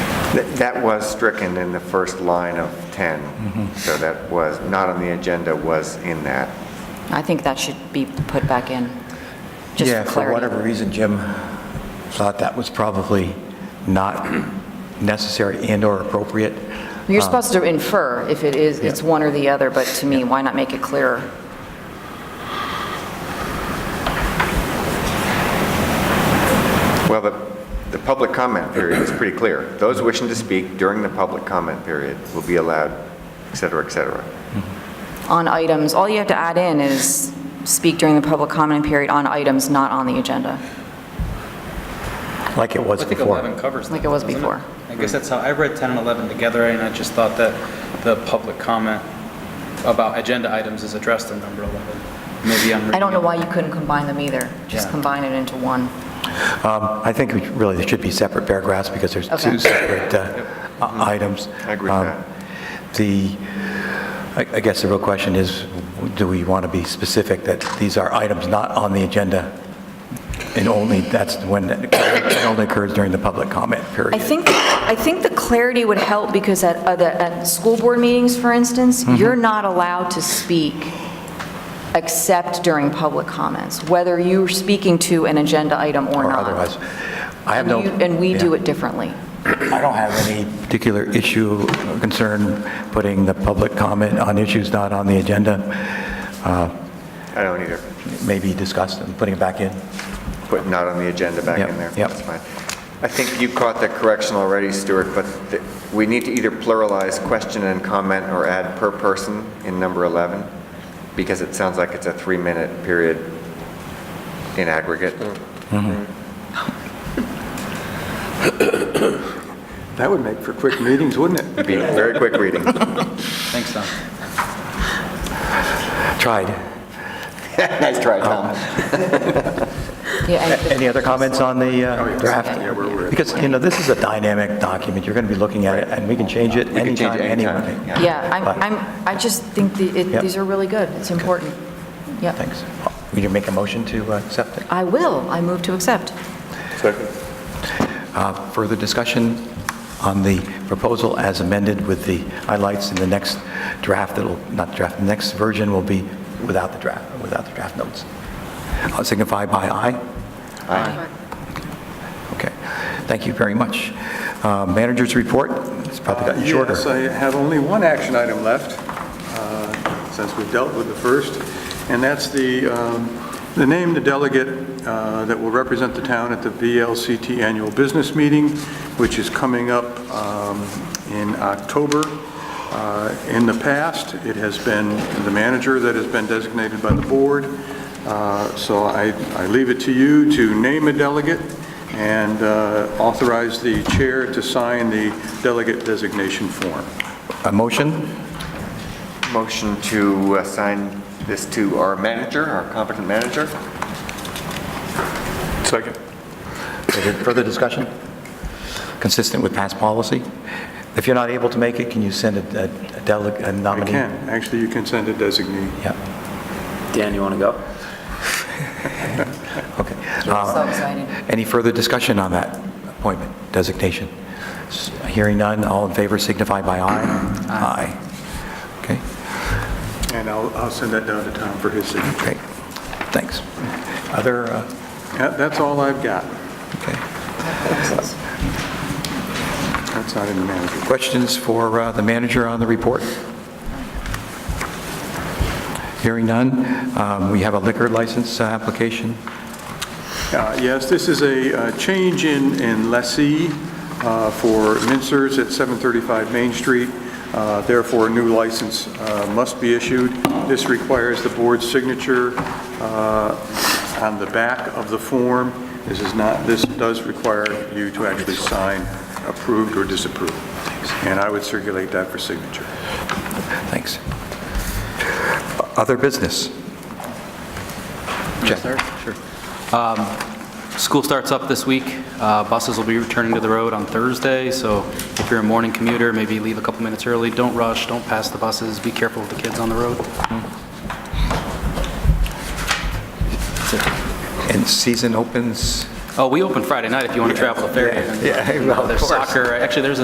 Th- That was stricken in the first line of 10, so that was, not on the agenda, was in that. I think that should be put back in, just Yeah, for for clarity. whatever reason, Jim thought that was probably not necessary and/or appropriate. You're supposed to infer if it is, it's one or the other, but to me, why not make it clearer? Well, the, the public comment period is pretty clear. Those wishing to speak during the public comment period will be allowed, et cetera, et cetera. On items, all you have to add in is speak during the public comment period on items not on the agenda. Like it was I think before. 11 covers that. Like it was doesn't before. I guess that's how, I read 10 and 11 together, and I just thought that the public comment about agenda items is addressed in number 11. Maybe I'm reading I don't know it- why you couldn't combine them either, just Yeah. combine it into one. Um, I think we really, there should be separate paragraphs because there's Okay. two separate uh, i- items. Mm-hmm. I agree with Um, that. The, I I guess the real question is, do we want to be specific that these are items not on the agenda? And only, that's when, that occurs- it only occurs during the public comment period. I think, I think the clarity would help because at other, at school board meetings, for instance, Mm-hmm. you're not allowed to speak except during public comments, whether you're speaking to an agenda item or Or not. otherwise. I And have no. you- And we do yeah. it differently. I don't have any particular issue or concern putting the public comment on issues not on the agenda. Uh, I don't either. Maybe discuss them, putting it back in. Put not on the agenda back Yep, in there. yep. That's fine. I think you caught that correction already, Stuart, but th- we need to either pluralize question and comment or add per person in number 11, because it sounds like it's a three-minute period in aggregate. Mm-hmm. That would make for quick meetings, wouldn't it? It'd be very quick reading. Thanks, Tom. Tried. Nice try, Tom. Yeah, and Any other comments on the uh, draft? Yeah, Because, you know, this is a dynamic document, you're going to be looking at it, and we can change it can change anytime, it anytime, anyway. yeah. Yeah, I'm, I'm, I just think the, it, Yep. these are really good. It's important. Yeah. Thanks. Will you make a motion to uh, accept it? I will. I move to accept. Uh, Further discussion on the proposal as amended with the highlights in the next draft that'll, not draft, the next version will be without the draft, without the draft notes. I'll Signify by aye. Aye. Okay. Thank you very much. Uh, Managers' report, it's probably gotten shorter. Yes, I have only one action item left, uh, since we've dealt with the first, and that's the, um, the name, the delegate uh, that will represent the town at the VLCT Annual Business Meeting, which is coming up um, in October. Uh, In the past, it has been the manager that has been designated by the board, Uh, so I, I leave it to you to name a delegate and uh, authorize the chair to sign the delegate designation form. A motion? Um, Motion to assign this to our manager, our competent manager. Second. Further discussion? Consistent with past policy? If you're not able to make it, can you send a a- a delegate, a I nominee? can, actually, you can send a designee. Yeah, Dan, you want to go? okay. So Uh, excited. Any further discussion on that appointment, designation? S- Hearing none, all in favor signify by aye. Aye. Okay, And I'll, I'll send that down to Tom for his signature. great, thanks. Other, uh, That- That's all I've got. okay, That's not in the manager. questions for uh, the manager on the report? Hearing none, um, we have a liquor license uh, application. Uh, Yes, this is a uh, change in in lessee uh, for Mincers at 735 Main Street. Uh, Therefore, a new license uh, must be issued. This requires the board's signature uh, on the back of the form. This is not, this does require you to actually sign approved or disapproved. And I would circulate that for signature. Thanks. Other business? Jeff? Sure. Um, School starts up this week. Uh, Buses will be returning to the road on Thursday, so if you're a morning commuter, maybe leave a couple minutes early. Don't rush, don't pass the buses, be careful with the kids on the road. And season opens? Oh, we open Friday night if you want to travel to Fairhaven. yeah, well, of There's course. soccer, actually, there's a